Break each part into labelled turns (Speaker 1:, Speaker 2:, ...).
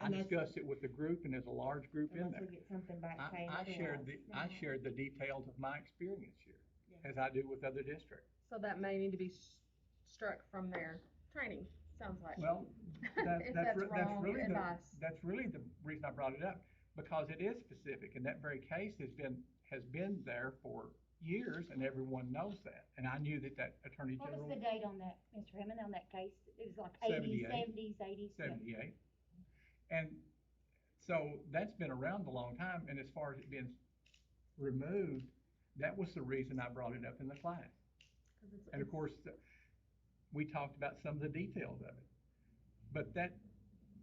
Speaker 1: I
Speaker 2: Unless-
Speaker 1: discussed it with the group and there's a large group in
Speaker 2: Unless
Speaker 1: there.
Speaker 2: we get something back saying
Speaker 1: I, I shared the, I
Speaker 2: otherwise.
Speaker 1: shared the details of my experience here,
Speaker 2: Yeah.
Speaker 1: as I do with other districts.
Speaker 3: So that may need to be s- struck from their training, sounds like.
Speaker 1: Well, that,
Speaker 3: If
Speaker 1: that's,
Speaker 3: that's
Speaker 1: re- that's
Speaker 3: wrong
Speaker 1: really the,
Speaker 3: advice.
Speaker 1: that's really the reason I brought it up, because it is specific, and that very case has been, has been there for years, and everyone knows that, and I knew that that Attorney
Speaker 4: What was the
Speaker 1: General
Speaker 4: date on that, Mr. Hammond, on that case? It was like
Speaker 1: 78.
Speaker 4: eighties, seventies, eighties?
Speaker 1: seventy-eight. And so that's been around a long time, and as far as it being removed, that was the reason I brought it up in the class.
Speaker 3: 'Cause it's-
Speaker 1: And of course, the- we talked about some of the details of it. But that,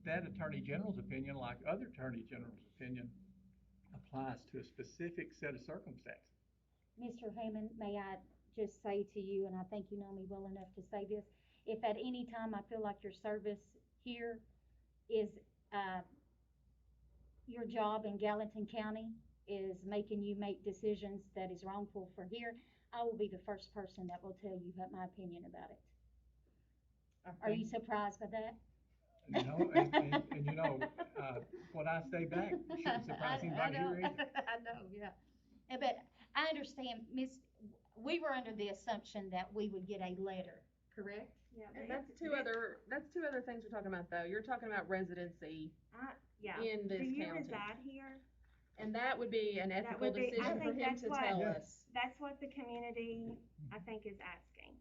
Speaker 1: that Attorney General's opinion, like other Attorney General's opinion, applies to a specific set of circumstances.
Speaker 4: Mr. Hammond, may I just say to you, and I think you know me well enough to say this, if at any time I feel like your service here is, uh, your job in Gallatin County is making you make decisions that is wrongful for here, I will be the first person that will tell you what my opinion about it.
Speaker 2: I
Speaker 4: Are you
Speaker 2: think-
Speaker 4: surprised by that?
Speaker 1: And, You know, and, and, and you know, uh, what I say back shouldn't surprise
Speaker 4: I- I
Speaker 1: anybody
Speaker 4: know.
Speaker 1: here either.
Speaker 4: I know, yeah. Uh, But I understand, Miss, we were under the assumption that we would get a letter, correct?
Speaker 5: Yeah, but
Speaker 3: And
Speaker 5: it's-
Speaker 3: that's two other, that's two other things we're talking about though. You're talking about residency
Speaker 5: I- Yeah.
Speaker 3: in
Speaker 5: Do
Speaker 3: this
Speaker 5: you
Speaker 3: county.
Speaker 5: reside here?
Speaker 3: And that would be an ethical
Speaker 5: would be- I
Speaker 3: decision for
Speaker 5: think
Speaker 3: him
Speaker 5: that's
Speaker 3: to
Speaker 5: why-
Speaker 3: tell
Speaker 1: Yeah.
Speaker 3: us.
Speaker 5: That's what the community, I think, is asking.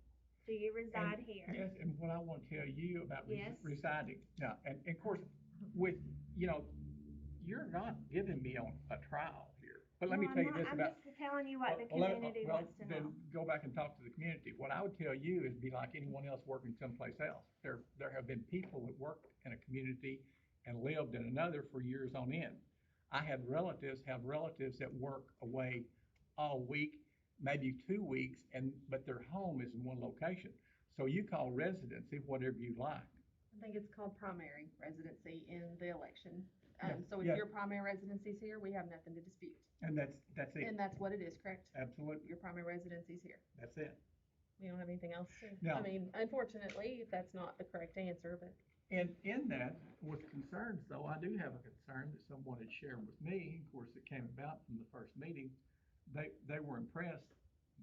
Speaker 5: Do you reside here?
Speaker 1: Yes, and what I want to tell you about resi-
Speaker 5: Yes.
Speaker 1: residing, now, and, and of course, with, you know, you're not giving me on a trial here, but let me
Speaker 5: No, I'm
Speaker 1: tell you
Speaker 5: not.
Speaker 1: this
Speaker 5: I'm
Speaker 1: about.
Speaker 5: just telling you what the
Speaker 1: Well, let-
Speaker 5: community
Speaker 1: well,
Speaker 5: wants to
Speaker 1: then
Speaker 5: know.
Speaker 1: Go back and talk to the community. What I would tell you is be like anyone else working someplace else. There, there have been people that worked in a community and lived in another for years on end. I had relatives, have relatives that work away all week, maybe two weeks, and, but their home is in one location. So you call residency whatever you like.
Speaker 3: I think it's called primary residency in the election.
Speaker 1: Yeah,
Speaker 3: Um, so if
Speaker 1: yeah.
Speaker 3: your primary residency's here, we have nothing to dispute.
Speaker 1: And that's, that's it.
Speaker 3: And that's what it is, correct?
Speaker 1: Absolutely.
Speaker 3: Your primary residency's here.
Speaker 1: That's it.
Speaker 3: We don't have anything else to,
Speaker 1: No.
Speaker 3: I mean, unfortunately, that's not the correct answer, but.
Speaker 1: And in that, with concerns though, I do have a concern that someone had shared with me, of course, it came about from the first meeting. They, they were impressed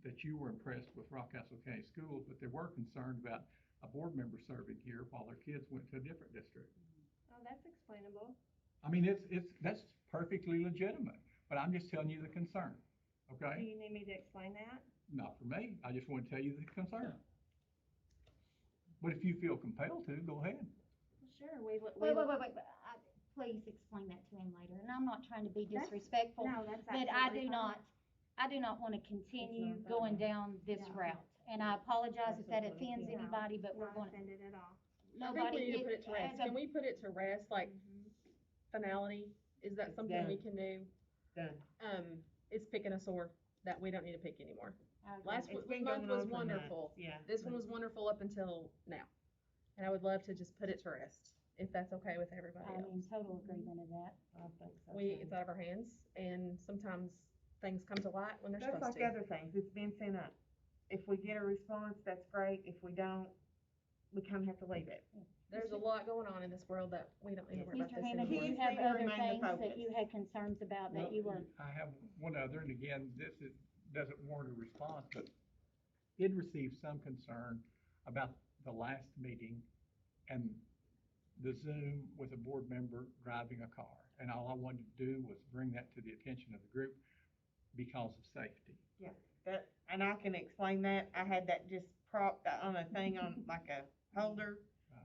Speaker 1: that you were impressed with Rockcastle County Schools, but they were concerned about a board member serving here while their kids went to a different district.
Speaker 5: Oh, that's explainable.
Speaker 1: I mean, it's, it's, that's perfectly legitimate, but I'm just telling you the concern,
Speaker 5: Do
Speaker 1: okay?
Speaker 5: you need me to explain that?
Speaker 1: Not for me, I just want to tell you the concern. But if you feel compelled to, go ahead.
Speaker 5: Sure, we, would- we.
Speaker 4: Wait,
Speaker 5: would-
Speaker 4: wait, wait, wait, I- please explain that to him later, and I'm not trying to be
Speaker 5: That's-
Speaker 4: disrespectful,
Speaker 5: No, that's
Speaker 4: but I
Speaker 5: absolutely
Speaker 4: do
Speaker 5: fine.
Speaker 4: not, I do not wanna continue
Speaker 2: It's not
Speaker 4: going
Speaker 2: fair.
Speaker 4: down this
Speaker 5: Yeah.
Speaker 4: route. And I apologize if that
Speaker 2: Absolutely.
Speaker 4: offends
Speaker 5: No.
Speaker 4: anybody, but we're
Speaker 5: Not
Speaker 4: gonna,
Speaker 5: offended at all.
Speaker 3: I think
Speaker 4: nobody.
Speaker 3: we need to put it to
Speaker 4: as
Speaker 3: rest.
Speaker 4: a-
Speaker 3: Can we put it to rest, like
Speaker 5: Mhm.
Speaker 3: finality? Is that
Speaker 2: It's
Speaker 3: something we can do?
Speaker 2: Done.
Speaker 3: Um, it's picking a sore that we don't need to pick anymore.
Speaker 4: I agree.
Speaker 3: Last
Speaker 2: It's
Speaker 3: one-
Speaker 2: been
Speaker 3: month
Speaker 2: going
Speaker 3: was
Speaker 2: on for months,
Speaker 3: wonderful.
Speaker 2: Yeah.
Speaker 3: This one was wonderful up until now. And I would love to just put it to rest, if that's okay with everybody
Speaker 4: I'm in
Speaker 3: else.
Speaker 4: total agreement of that.
Speaker 2: I think so,
Speaker 3: We,
Speaker 2: too.
Speaker 3: it's out of our hands, and sometimes things come to light when they're
Speaker 2: That's
Speaker 3: supposed
Speaker 2: like
Speaker 3: to.
Speaker 2: other things, it's been sent up. If we get a response, that's great, if we don't, we kinda have to leave it.
Speaker 3: There's a lot going on in this world that we don't need to worry about
Speaker 4: Mr.
Speaker 3: this
Speaker 4: Hammond, do
Speaker 3: anymore.
Speaker 4: you
Speaker 2: Please
Speaker 4: have
Speaker 2: stay and
Speaker 4: other
Speaker 2: remain the
Speaker 4: things that
Speaker 2: focus.
Speaker 4: you had concerns about
Speaker 1: Well,
Speaker 4: that you were?
Speaker 1: I have one other, and again, this is, doesn't warrant a response, but did receive some concern about the last meeting and the Zoom with a board member driving a car. And all I wanted to do was bring that to the attention of the group because of safety.
Speaker 2: That, and I can explain that, I had that just propped on a thing on, like a holder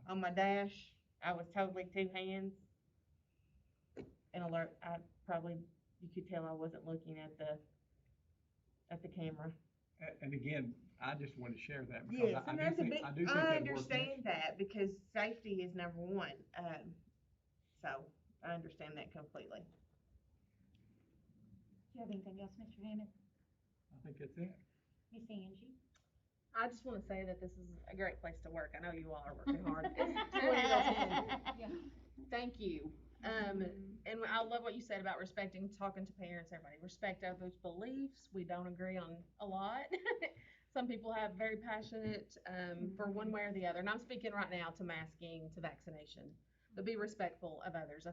Speaker 2: on my dash, I was totally two hands. And alert, I probably, you could tell I wasn't looking at the, at the camera.
Speaker 1: A- And again, I just wanted to share that because
Speaker 2: Yes,
Speaker 1: I-
Speaker 2: and
Speaker 1: I do
Speaker 2: that's a
Speaker 1: think,
Speaker 2: big,
Speaker 1: I do think
Speaker 2: I
Speaker 1: that works.
Speaker 2: understand that, because safety is number one, um, so, I understand that completely.
Speaker 4: Do you have anything else, Mr. Hammond?
Speaker 1: I think that's it.
Speaker 4: Miss Angie?
Speaker 3: I just wanna say that this is a great place to work. I know you all are working hard. It's really awesome. Thank you. Um, and I love what you said about respecting, talking to parents, everybody. Respect others' beliefs. We don't agree on a lot. Some people have very passionate um, for one way or the other. And I'm speaking right now to masking, to vaccination. But be respectful of others. I